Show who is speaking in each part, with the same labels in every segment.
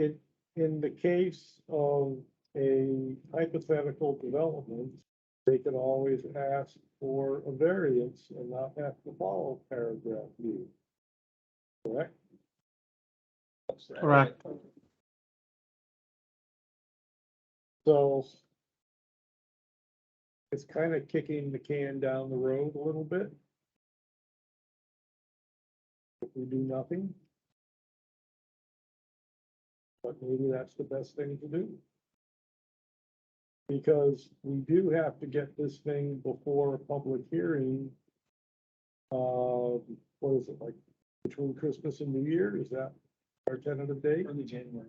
Speaker 1: in, in the case of a hypothetical development, they could always ask for a variance and not have to follow paragraph B. Correct?
Speaker 2: Correct.
Speaker 1: So it's kind of kicking the can down the road a little bit. If we do nothing. But maybe that's the best thing to do. Because we do have to get this thing before a public hearing. Uh, what is it like, between Christmas and New Year, is that our tentative date?
Speaker 2: Early January.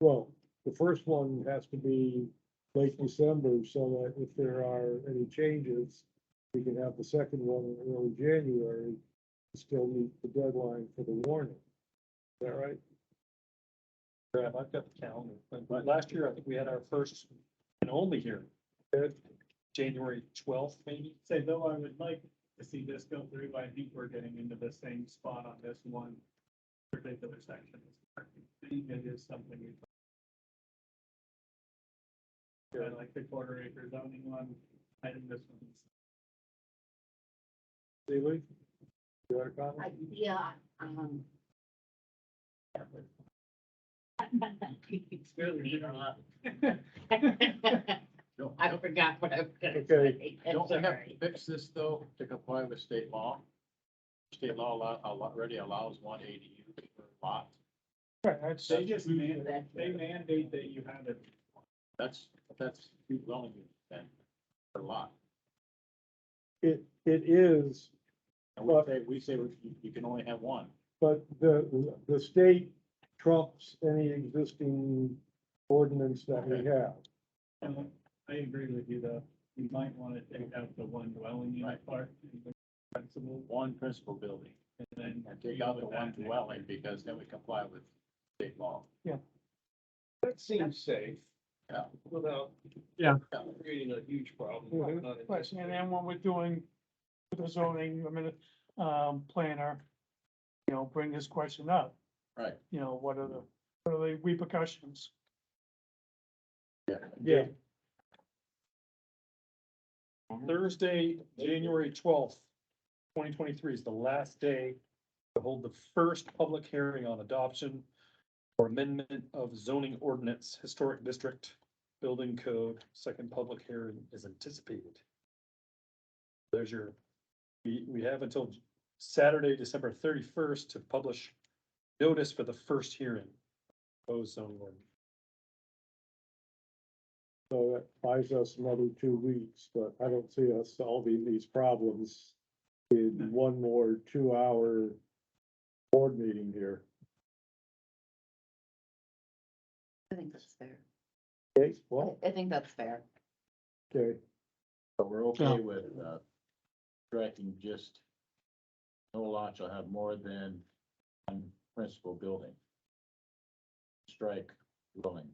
Speaker 1: Well, the first one has to be late December, so that if there are any changes, we can have the second one in early January, and still meet the deadline for the warning. Is that right?
Speaker 2: Brad, I've got the calendar, but but last year, I think we had our first and only hearing,
Speaker 1: Ed?
Speaker 2: January twelfth, maybe?
Speaker 3: say, though I would like to see this go through, I think we're getting into the same spot on this one particular section. I think it is something we. Yeah, like the quarter acre zoning one, I think this one's.
Speaker 1: Seeley? You got a comment?
Speaker 4: I- Yeah, um. It's really, you know. I forgot what I was gonna
Speaker 1: Okay.
Speaker 4: say. I'm
Speaker 5: Don't we have
Speaker 4: sorry.
Speaker 5: to fix this though to comply with state law? State law allo- allo- already allows one ADU per lot.
Speaker 3: They just mandate,
Speaker 4: That's-
Speaker 3: they mandate that you have it.
Speaker 5: That's, that's two dwelling units then per lot.
Speaker 1: It, it is,
Speaker 5: And we
Speaker 1: Well-
Speaker 5: say, we say we- you, you can only have one.
Speaker 1: but the, the state trumps any existing ordinance that we have.
Speaker 3: And I agree with you though, you might want to take out the one dwelling unit part. and the Principal,
Speaker 5: One principal building
Speaker 3: and then.
Speaker 5: and take out the
Speaker 3: deal with that
Speaker 5: one
Speaker 3: next
Speaker 5: dwelling because then we comply with state law.
Speaker 6: That seems safe.
Speaker 5: Yeah.
Speaker 6: Without.
Speaker 2: Yeah.
Speaker 6: Creating a huge problem.
Speaker 1: Mhm.
Speaker 2: Mm-hmm.
Speaker 6: not in-
Speaker 2: Question, and then when we're doing with the zoning, I mean, um, planner, you know, bring this question up.
Speaker 5: Right.
Speaker 2: You know, what are the, what are the repercussions?
Speaker 1: Yeah.
Speaker 2: Thursday, January twelfth, twenty twenty-three is the last day to hold the first public hearing on adoption or amendment of zoning ordinance, historic district, building code, second public hearing is anticipated. There's your, we, we have until Saturday, December thirty-first to publish notice for the first hearing. Proposed zoning ordinance.
Speaker 1: So that buys us another two weeks, but I don't see us solving these problems in one more two-hour board meeting here.
Speaker 4: I think that's fair.
Speaker 1: Okay, well,
Speaker 4: I think that's fair.
Speaker 1: okay,
Speaker 5: So we're okay with, uh, striking just no lot shall have more than one principal building. Strike dwelling.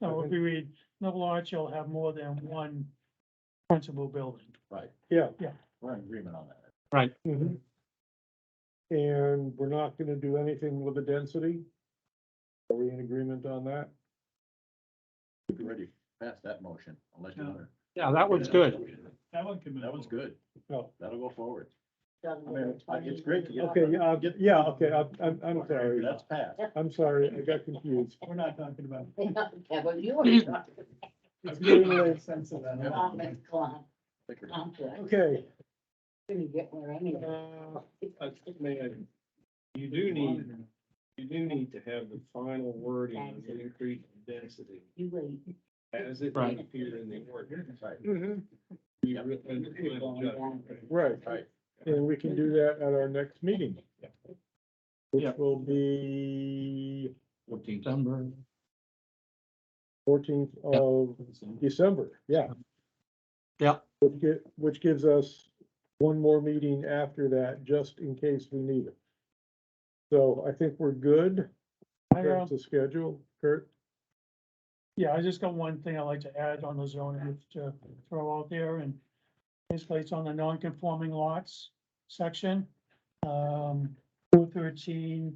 Speaker 1: No, if
Speaker 2: we read, no large shall have more than one principal building.
Speaker 5: Right,
Speaker 1: yeah.
Speaker 5: we're in agreement on that.
Speaker 1: mhm. And we're not gonna do anything with the density? Are we in agreement on that?
Speaker 5: We've already passed that motion, unless you
Speaker 3: No.
Speaker 5: want to.
Speaker 7: Yeah, that one's good.
Speaker 3: That one can. move
Speaker 5: That one's
Speaker 3: forward.
Speaker 5: good.
Speaker 1: No.
Speaker 5: That'll go forward.
Speaker 4: Done
Speaker 5: I
Speaker 4: with
Speaker 5: mean, I- it's
Speaker 4: 20.
Speaker 5: great to get.
Speaker 1: Okay, yeah, I'll get- yeah, okay, I'm, I'm, I'm sorry,
Speaker 5: That's passed.
Speaker 1: I'm sorry, I got confused.
Speaker 3: We're not talking about.
Speaker 4: Yeah, well, you were talking
Speaker 3: It's getting a little sense of that.
Speaker 5: Yeah.
Speaker 4: about this club,
Speaker 5: Thicker.
Speaker 3: Uh,
Speaker 4: conflict.
Speaker 1: Okay,
Speaker 4: Didn't get where any of
Speaker 6: Uh,
Speaker 4: it.
Speaker 6: I think, man, You do need, you do need to have the final wording on the increase in density
Speaker 4: You wait.
Speaker 6: as it
Speaker 4: Right.
Speaker 6: may appear in the ordinance.
Speaker 5: Right,
Speaker 2: Mm-hmm.
Speaker 6: You re- and the final judgment, right?
Speaker 1: right,
Speaker 5: right.
Speaker 1: and we can do that at our next meeting. Which
Speaker 2: Yeah.
Speaker 1: will be
Speaker 6: Fourteen.
Speaker 7: Number,
Speaker 1: fourteenth of December, yeah.
Speaker 7: Yeah.
Speaker 1: Which gi- which gives us one more meeting after that, just in case we need it. So I think we're good,
Speaker 2: I uh, um,
Speaker 1: that's the schedule, Kurt,
Speaker 2: Yeah, I just got one thing I'd like to add on the zoning to throw out there and basically it's on the non-conforming lots section. Um, two thirteen